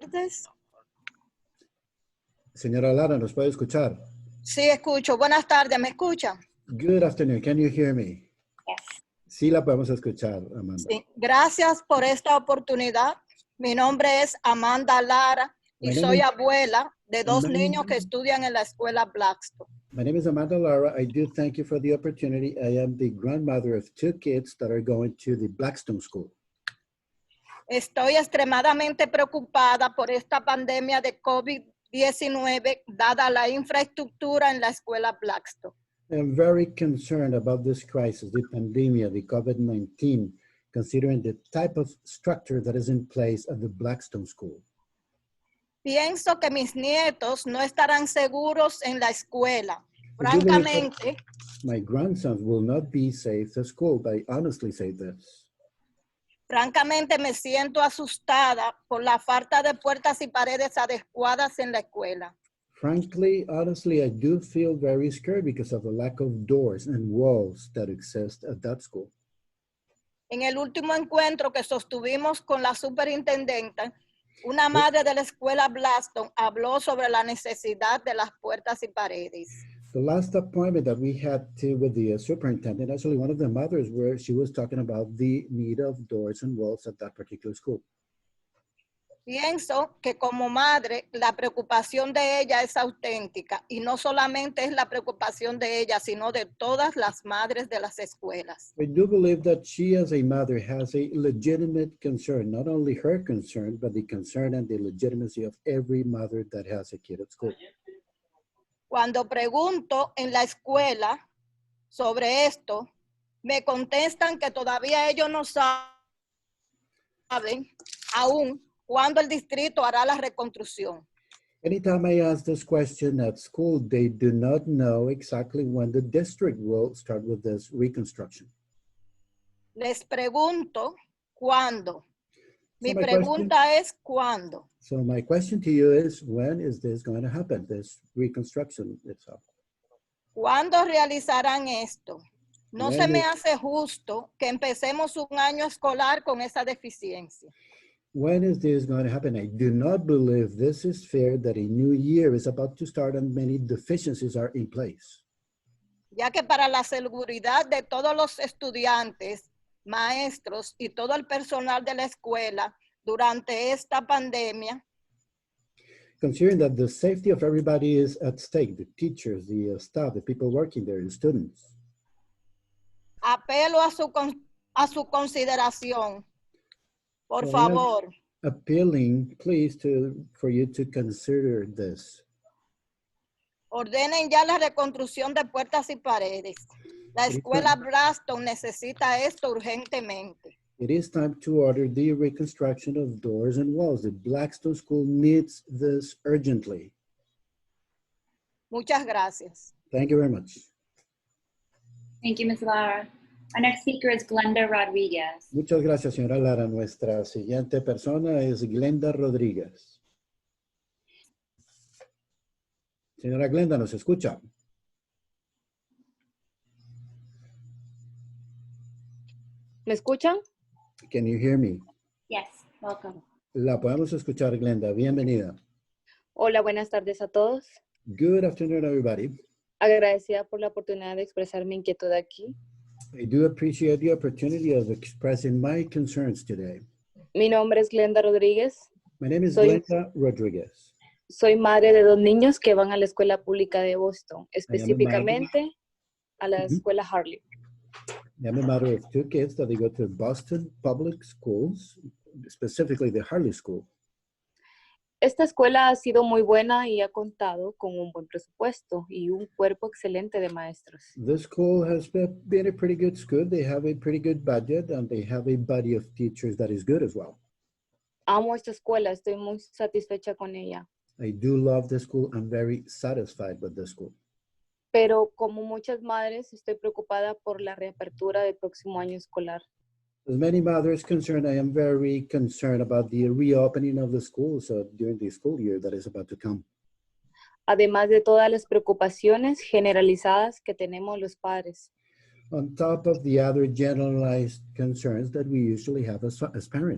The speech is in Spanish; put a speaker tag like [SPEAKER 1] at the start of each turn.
[SPEAKER 1] tardes.
[SPEAKER 2] Señora Lara, ¿nos puede escuchar?
[SPEAKER 1] Sí, escucho. Buenas tardes, ¿me escuchan?
[SPEAKER 2] Good afternoon. Can you hear me?
[SPEAKER 1] Yes.
[SPEAKER 2] Sí, la podemos escuchar, Amanda.
[SPEAKER 1] Sí. Gracias por esta oportunidad. Mi nombre es Amanda Lara y
[SPEAKER 2] My name
[SPEAKER 1] soy
[SPEAKER 2] is-
[SPEAKER 1] abuela de dos
[SPEAKER 2] My name-
[SPEAKER 1] niños que estudian en la escuela Blackstone.
[SPEAKER 2] My name is Amanda Lara. I do thank you for the opportunity. I am the grandmother of two kids that are going to the Blackstone School.
[SPEAKER 1] Estoy extremadamente preocupada por esta pandemia de COVID-19 dada la infraestructura en la escuela Blackstone.
[SPEAKER 2] I'm very concerned about this crisis, the pandemic, the COVID-19, considering the type of structure that is in place at the Blackstone School.
[SPEAKER 1] Pienso que mis nietos no estarán seguros en la escuela.
[SPEAKER 2] Yo me-
[SPEAKER 1] Francamente,
[SPEAKER 2] My grandsons will not be safe at school. I honestly say this.
[SPEAKER 1] francamente me siento asustada por la falta de puertas y paredes adecuadas en la escuela.
[SPEAKER 2] Frankly, honestly, I do feel very scared because of the lack of doors and walls that exist at that school.
[SPEAKER 1] En el último encuentro que sostuvimos con la superintendente, una madre de la escuela Blaston habló sobre la necesidad de las puertas y paredes.
[SPEAKER 2] The last appointment that we had to with the uh, superintendent, actually one of the mothers, where she was talking about the need of doors and walls at that particular school.
[SPEAKER 1] Pienso que como madre la preocupación de ella es auténtica y no solamente es la preocupación de ella, sino de todas las madres de las escuelas.
[SPEAKER 2] I do believe that she, as a mother, has a legitimate concern, not only her concern, but the concern and the legitimacy of every mother that has a kid at school.
[SPEAKER 1] Cuando pregunto en la escuela sobre esto, me contestan que todavía ellos no sa- saben aún cuándo el distrito hará la reconstrucción.
[SPEAKER 2] Anytime I ask this question at school, they do not know exactly when the district will start with this reconstruction.
[SPEAKER 1] Les pregunto cuándo. Mi
[SPEAKER 2] So my question-
[SPEAKER 1] pregunta es cuándo.
[SPEAKER 2] So my question to you is, when is this going to happen, this reconstruction itself?
[SPEAKER 1] ¿Cuándo realizarán esto? No se
[SPEAKER 2] Bueno.
[SPEAKER 1] me hace justo que empecemos un año escolar con esa deficiencia.
[SPEAKER 2] When is this going to happen? I do not believe this is fair that a new year is about to start and many deficiencies are in place.
[SPEAKER 1] ya que para la seguridad de todos los estudiantes, maestros y todo el personal de la escuela durante esta pandemia,
[SPEAKER 2] Considering that the safety of everybody is at stake, the teachers, the uh, staff, the people working there, the students.
[SPEAKER 1] apelo a su, con- a su consideración. Por
[SPEAKER 2] Bueno.
[SPEAKER 1] favor,
[SPEAKER 2] Appealing, please, to, for you to consider this.
[SPEAKER 1] ordenen ya la reconstrucción de puertas y paredes. La
[SPEAKER 2] Sí,
[SPEAKER 1] escuela Braston necesita esto urgentemente.
[SPEAKER 2] It is time to order the reconstruction of doors and walls. The Blackstone School needs this urgently.
[SPEAKER 1] Muchas gracias.
[SPEAKER 2] Thank you very much.
[SPEAKER 3] Thank you, Ms. Lara. Our next speaker is Glenda Rodriguez.
[SPEAKER 2] Muchas gracias, señora Lara. Nuestra siguiente persona es Glenda Rodríguez. Señora Glenda, ¿nos escucha?
[SPEAKER 4] ¿Me escuchan?
[SPEAKER 2] Can you hear me?
[SPEAKER 3] Yes, welcome.
[SPEAKER 2] La podemos escuchar, Glenda. Bienvenida.
[SPEAKER 4] Hola, buenas tardes a todos.
[SPEAKER 2] Good afternoon, everybody.
[SPEAKER 4] Agradecida por la oportunidad de expresar mi inquietud aquí.
[SPEAKER 2] I do appreciate the opportunity of expressing my concerns today.
[SPEAKER 4] Mi nombre es Glenda Rodríguez.
[SPEAKER 2] My name is
[SPEAKER 4] Soy-
[SPEAKER 2] Glenda Rodriguez.
[SPEAKER 4] Soy madre de dos niños que van a la escuela pública de Boston,
[SPEAKER 2] madre.
[SPEAKER 4] específicamente a la
[SPEAKER 2] Ujú.
[SPEAKER 4] escuela Harley.
[SPEAKER 2] I'm a mother of two kids that they go to Boston Public Schools, specifically the Harley School.
[SPEAKER 4] Esta escuela ha sido muy buena y ha contado con un buen presupuesto y un cuerpo excelente de maestros.
[SPEAKER 2] This school has be- been a pretty good school. They have a pretty good budget and they have a body of teachers that is good as well.
[SPEAKER 4] Amo esta escuela, estoy muy satisfecha con ella.
[SPEAKER 2] I do love the school. I'm very satisfied with the school.
[SPEAKER 4] Pero como muchas madres, estoy preocupada por la reapertura del próximo año escolar.
[SPEAKER 2] As many mothers concerned, I am very concerned about the reopening of the school so during the school year that is about to come.
[SPEAKER 4] además de todas las preocupaciones generalizadas que tenemos los padres.
[SPEAKER 2] On top of the other generalized concerns that we usually have as, as parents.